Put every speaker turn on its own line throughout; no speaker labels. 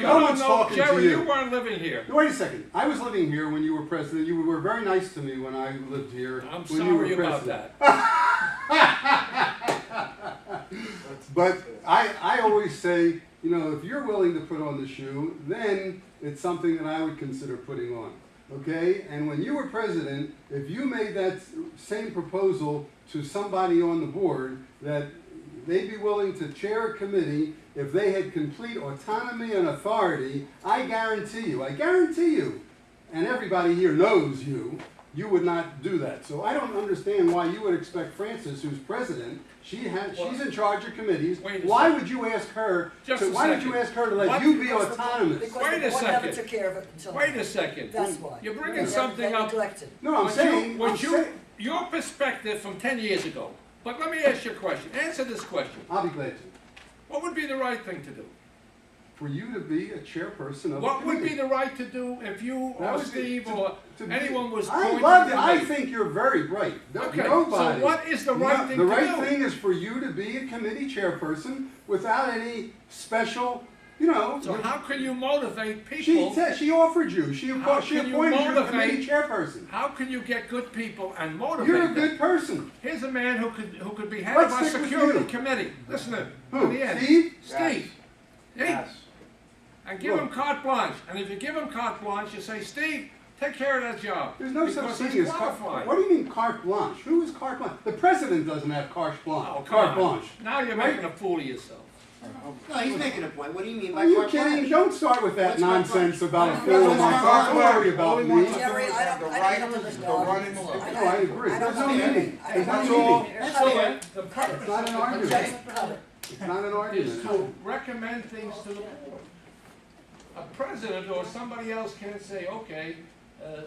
No
No,
one's
no,
talking to
Jerry,
you.
you weren't living here.
Wait a second. I was living here when you were president. You were very nice to me when I lived here.
I'm
when you were
sorry about
president.
that.
But I, I always say, you know, if you're willing to put on the shoe, then it's something that I would consider putting on. Okay? And when you were president, if you made that s- same proposal to somebody on the board that they'd be willing to chair a committee if they had complete autonomy and authority, I guarantee you, I guarantee you, and everybody here knows you, you would not do that. So I don't understand why you would expect Frances, who's president, she has, she's in charge of committees.
Wait a
Why
second.
would you ask her,
Just
to-
a
why would you
second.
ask her to let
What-
you be
Because the-
autonomous?
Because
Wait a
the board never
second.
took care of it until.
Wait a second.
That's why.
You're
They
bringing
never-
something
they
up.
neglected.
No, I'm
What you-
saying,
what
I'm
you-
saying,
Your perspective from ten years ago. But let me ask you a question. Answer this question.
I'll be glad to.
What would be the right thing to do?
For you to be a chairperson of a
What would be
committee.
the right to do if you
That
or
would be-
Steve
to-
or
to be-
anyone was
I
appointed
love,
to
it. I
me?
think you're very bright. No-
Okay, so
Nobody.
what is the right
No,
thing
The
to
right
do?
thing is for you to be a committee chairperson without any special, you know.
So how can you motivate
She,
people?
te- she offered you. She, appo-
How
she
can you
appointed you the committee
motivate-
chairperson.
How can you get good people and motivate
You're a
them?
good person.
Here's a man who could, who could be head
Let's
of our
stick with
security
you.
committee. Listen to him.
Who,
in the end.
Steve?
Steve. Steve. And give him
Look.
carte blanche. And if you give him carte blanche, you say, Steve, take care of that job.
There's no
because
such thing
he's
as carte
qualified.
What do you mean carte blanche? Who is carte blanche? The president doesn't have carte blanche.
Oh, come
carte
on.
blanche.
Now you're making a fool of yourself.
No, he's making a point. What do you mean by
Are you
carte blanche?
kidding? Don't start with that
What's carte
nonsense
blanche?
about a
What's
fool.
carte blanche?
Don't worry about
Only
me.
one-
Jerry, I don't, I don't have to
The right is to run
No, I agree.
I
There's no
don't want to hear
meaning.
it. I
There's
don't
no
want
That's
to
meaning.
So
hear it.
all. That's
uh,
all.
the
It's
purpose
not an
of the
argument.
Jackson, cut it.
It's not an
is
argument.
to recommend things to the board. A president or somebody else can't say, okay, uh,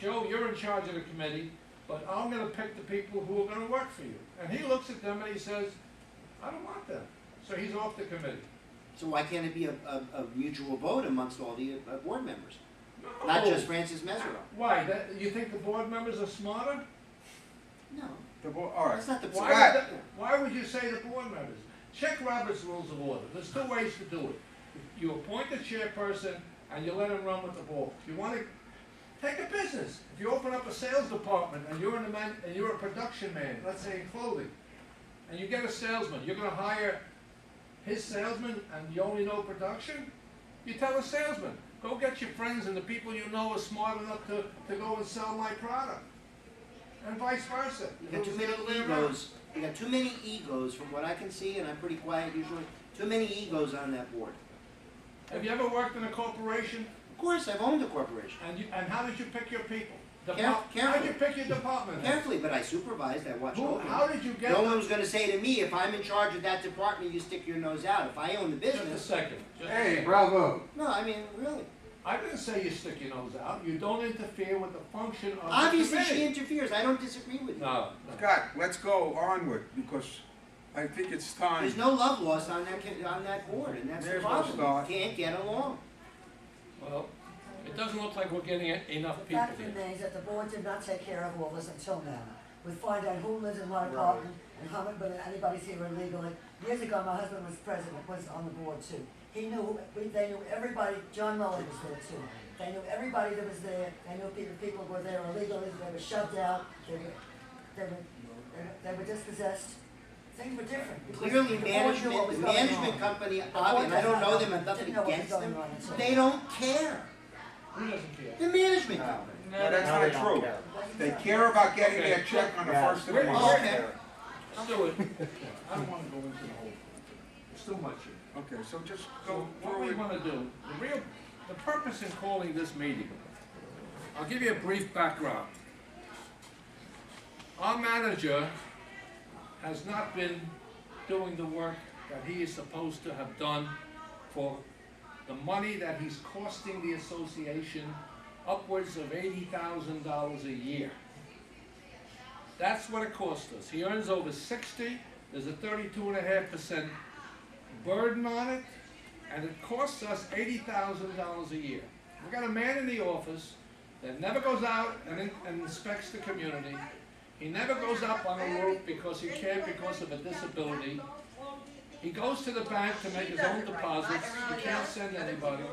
Joe, you're in charge of the committee, but I'm gonna pick the people who are gonna work for you. And he looks at them and he says, I don't want them, so he's off the committee.
So why can't it be a, a, a mutual vote amongst all the uh, board members,
No.
not just Francis Mesereau?
Why, that, you think the board members are smarter?
No,
The board, all right.
that's not the
Why
point.
would,
Scott.
that- why would you say the board members? Check Robert's Rules of Order, there's two ways to do it. You appoint the chairperson and you let him run with the ball. If you wanna, take a business, if you open up a sales department and you're in the man, and you're a production man, let's say in clothing, and you get a salesman, you're gonna hire his salesman and you only know production? You tell the salesman, go get your friends and the people you know are smart enough to, to go and sell my product. And vice versa.
You
If it
got too
was
many
the other way around.
egos. You got too many egos, from what I can see, and I'm pretty quiet usually. Too many egos on that board.
Have you ever worked in a corporation?
Of course, I've owned a corporation
And you, and how did you pick your people?
Caref-
Depart- how did
carefully.
you pick your department? heads?
carefully, but I supervised. I watched
Who,
over. them.
how did you get
No
them?
one was going to say to me, if I'm in charge of that department, you stick your nose out. If I own the
Just a
business,
second. just a
Hey,
second.
bravo.
no, I mean really.
I didn't say you stick your nose out. You don't interfere with the function of
Obviously,
the
she
committee.
interferes. I don't disagree with you.
No, no.
Scott, let's go onward because I think it's time.
There's no love lost on that, ki- on that board, and that's the
There's no
problem,
start.
you can't get along.
Well, it doesn't look like we're getting e- enough
The
people
fact
here.
remains that the board did not take care of all this until now. We find out who lives in what apartment and how many, whether anybody's here illegally. Years ago, my husband was president, was on the board too. He knew, we- they knew everybody, John Mullin was there too. They knew everybody that was there, they knew people, people were there illegally, they were shoved out, they were, they were, they were- they were dispossessed. Things were different. because the
Clearly,
board knew what
management,
was
the
going on.
management company,
board
Bobby, and I
does
don't
not
know
know.
them, I've nothing
Didn't know what was
against
going
them,
on until-
they don't care,
Who doesn't care?
the
Oh.
management company.
No, that's not true.
It wasn't
They
done.
care about getting
Okay.
their check on the
Yeah.
first of the
Wait,
month.
Oh, okay.
Stuart, I don't wanna go into the whole, it's too much here.
Okay, so just
So
go
what we
forward.
want to do, the real, the purpose in calling this meeting, I'll give you a brief background. Our manager has not been doing the work that he is supposed to have done for the money that he's costing the association upwards of eighty thousand dollars a year. That's what it costs us. He earns over sixty, there's a thirty-two and a half percent burden on it, and it costs us eighty thousand dollars a year. We got a man in the office that never goes out and, in- and inspects the community. He never goes up on a roof because he can't because of a disability. He goes to the bank to make his own deposits, he can't send anybody.